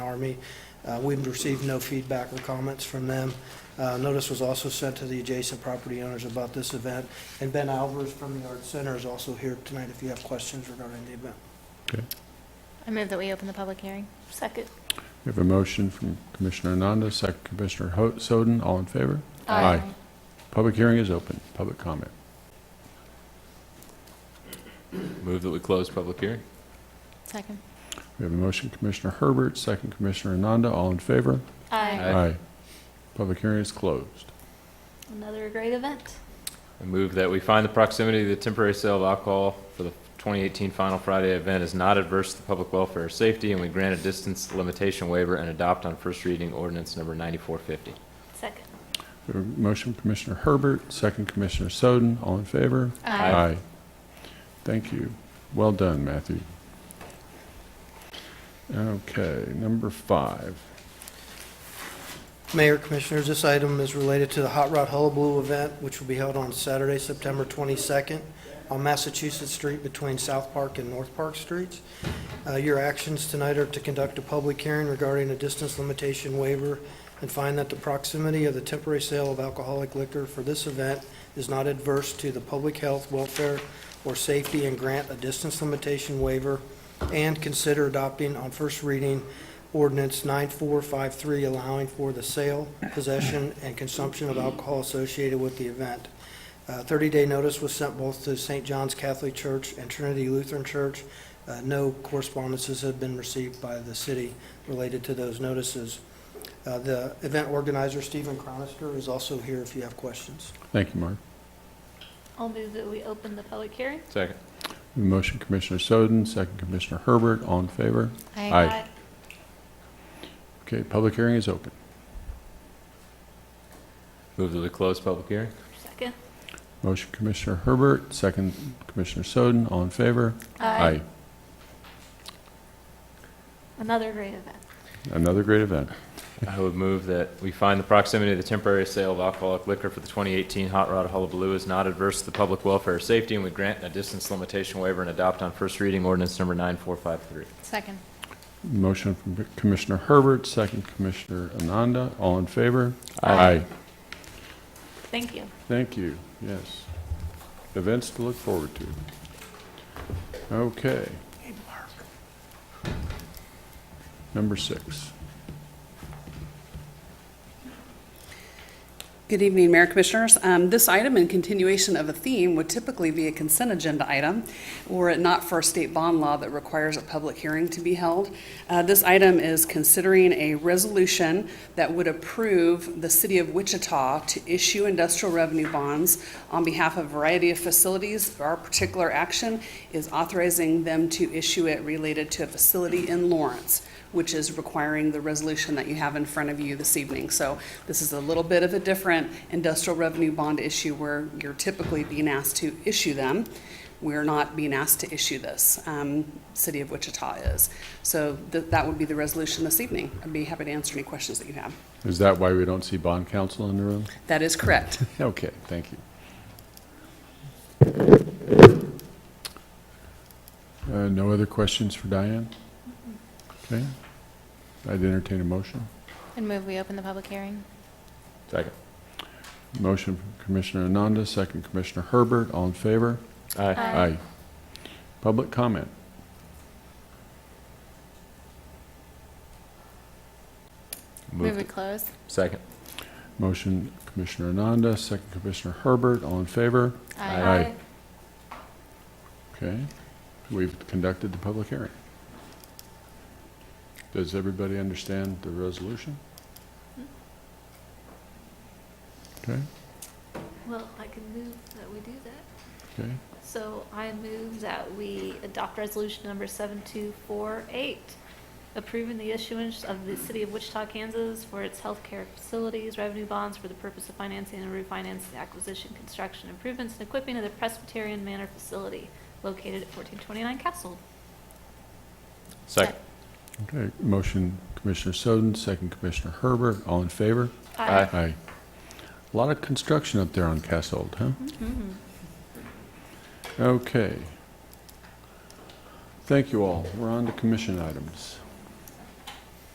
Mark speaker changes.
Speaker 1: Army. Uh, We've received no feedback or comments from them. Uh, Notice was also sent to the adjacent property owners about this event. And Ben Alvers from the Art Center is also here tonight if you have questions regarding the event.
Speaker 2: Okay.
Speaker 3: I move that we open the public hearing. Second.
Speaker 2: We have a motion from Commissioner Ananda, second Commissioner Ho- Soden. All in favor? Public hearing is open. Public comment.
Speaker 4: Move that we close public hearing?
Speaker 3: Second.
Speaker 2: We have a motion, Commissioner Herbert, second Commissioner Ananda. All in favor?
Speaker 4: Aye.
Speaker 2: Public hearing is closed.
Speaker 3: Another great event.
Speaker 4: I move that we find the proximity of the temporary sale of alcohol for the 2018 Final Friday event is not adverse to the public welfare or safety, and we grant a distance limitation waiver and adopt on first reading ordinance number 9450.
Speaker 3: Second.
Speaker 2: We have a motion, Commissioner Herbert, second Commissioner Soden. All in favor?
Speaker 4: Aye.
Speaker 2: Thank you. Well done, Matthew. Okay, number five.
Speaker 1: Mayor, Commissioners, this item is related to the Hot Rod Hullabaloo event, which will be held on Saturday, September 22nd, on Massachusetts Street between South Park and North Park Streets. Uh, Your actions tonight are to conduct a public hearing regarding a distance limitation waiver and find that the proximity of the temporary sale of alcoholic liquor for this event is not adverse to the public health, welfare, or safety, and grant a distance limitation waiver, and consider adopting on first reading ordinance 9453 allowing for the sale, possession, and consumption of alcohol associated with the event. Uh, 30-day notice was sent both to St. John's Catholic Church and Trinity Lutheran Church. Uh, No correspondences have been received by the city related to those notices. Uh, The event organizer, Stephen Cronister, is also here if you have questions.
Speaker 2: Thank you, Mark.
Speaker 3: I'll move that we open the public hearing.
Speaker 4: Second.
Speaker 2: We have a motion, Commissioner Soden, second Commissioner Herbert. All in favor? Aye. Okay, public hearing is open.
Speaker 4: Move that we close public hearing?
Speaker 3: Second.
Speaker 2: Motion Commissioner Herbert, second Commissioner Soden, all in favor?
Speaker 3: Another great event.
Speaker 2: Another great event.
Speaker 4: I would move that we find the proximity of the temporary sale of alcoholic liquor for the 2018 Hot Rod Hullabaloo is not adverse to the public welfare or safety, and we grant a distance limitation waiver and adopt on first reading ordinance number 9453.
Speaker 3: Second.
Speaker 2: Motion from Commissioner Herbert, second Commissioner Ananda, all in favor?
Speaker 3: Aye. Thank you.
Speaker 2: Thank you, yes. Events to look forward to. Okay. Number six.
Speaker 5: Good evening, Mayor Commissioners. Um, This item in continuation of a theme would typically be a consent agenda item were it not for a state bond law that requires a public hearing to be held. Uh, This item is considering a resolution that would approve the City of Wichita to issue industrial revenue bonds on behalf of a variety of facilities. Our particular action is authorizing them to issue it related to a facility in Lawrence which is requiring the resolution that you have in front of you this evening. So this is a little bit of a different industrial revenue bond issue where you're typically being asked to issue them. We're not being asked to issue this. Um, City of Wichita is. So th- that would be the resolution this evening. I'd be happy to answer any questions that you have.
Speaker 2: Is that why we don't see bond counsel in the room?
Speaker 5: That is correct.
Speaker 2: Okay, thank you. Uh, No other questions for Diane? Okay. I'd entertain a motion.
Speaker 3: And move we open the public hearing.
Speaker 4: Second.
Speaker 2: Motion from Commissioner Ananda, second Commissioner Herbert, all in favor?
Speaker 4: Aye.
Speaker 2: Public comment.
Speaker 3: Move we
Speaker 4: Move,
Speaker 3: close.
Speaker 4: second.
Speaker 2: Motion Commissioner Ananda, second Commissioner Herbert, all in favor?
Speaker 4: Aye.
Speaker 2: Okay. We've conducted the public hearing. Does everybody understand the resolution? Okay,
Speaker 6: Well, I can move that we do that.
Speaker 2: okay.
Speaker 6: So I move that we adopt resolution number 7248, approving the issuance of the City of Wichita, Kansas for its healthcare facilities revenue bonds for the purpose of financing and refinancing the acquisition, construction, improvements, and equipping of the Presbyterian Manor facility located at 1429 Castle.
Speaker 4: Second.
Speaker 2: Okay, motion Commissioner Soden, second Commissioner Herbert, all in favor?
Speaker 4: Aye.
Speaker 2: Aye. A lot of construction up there on Cassold, huh? Okay. Thank you all. We're on to commission items.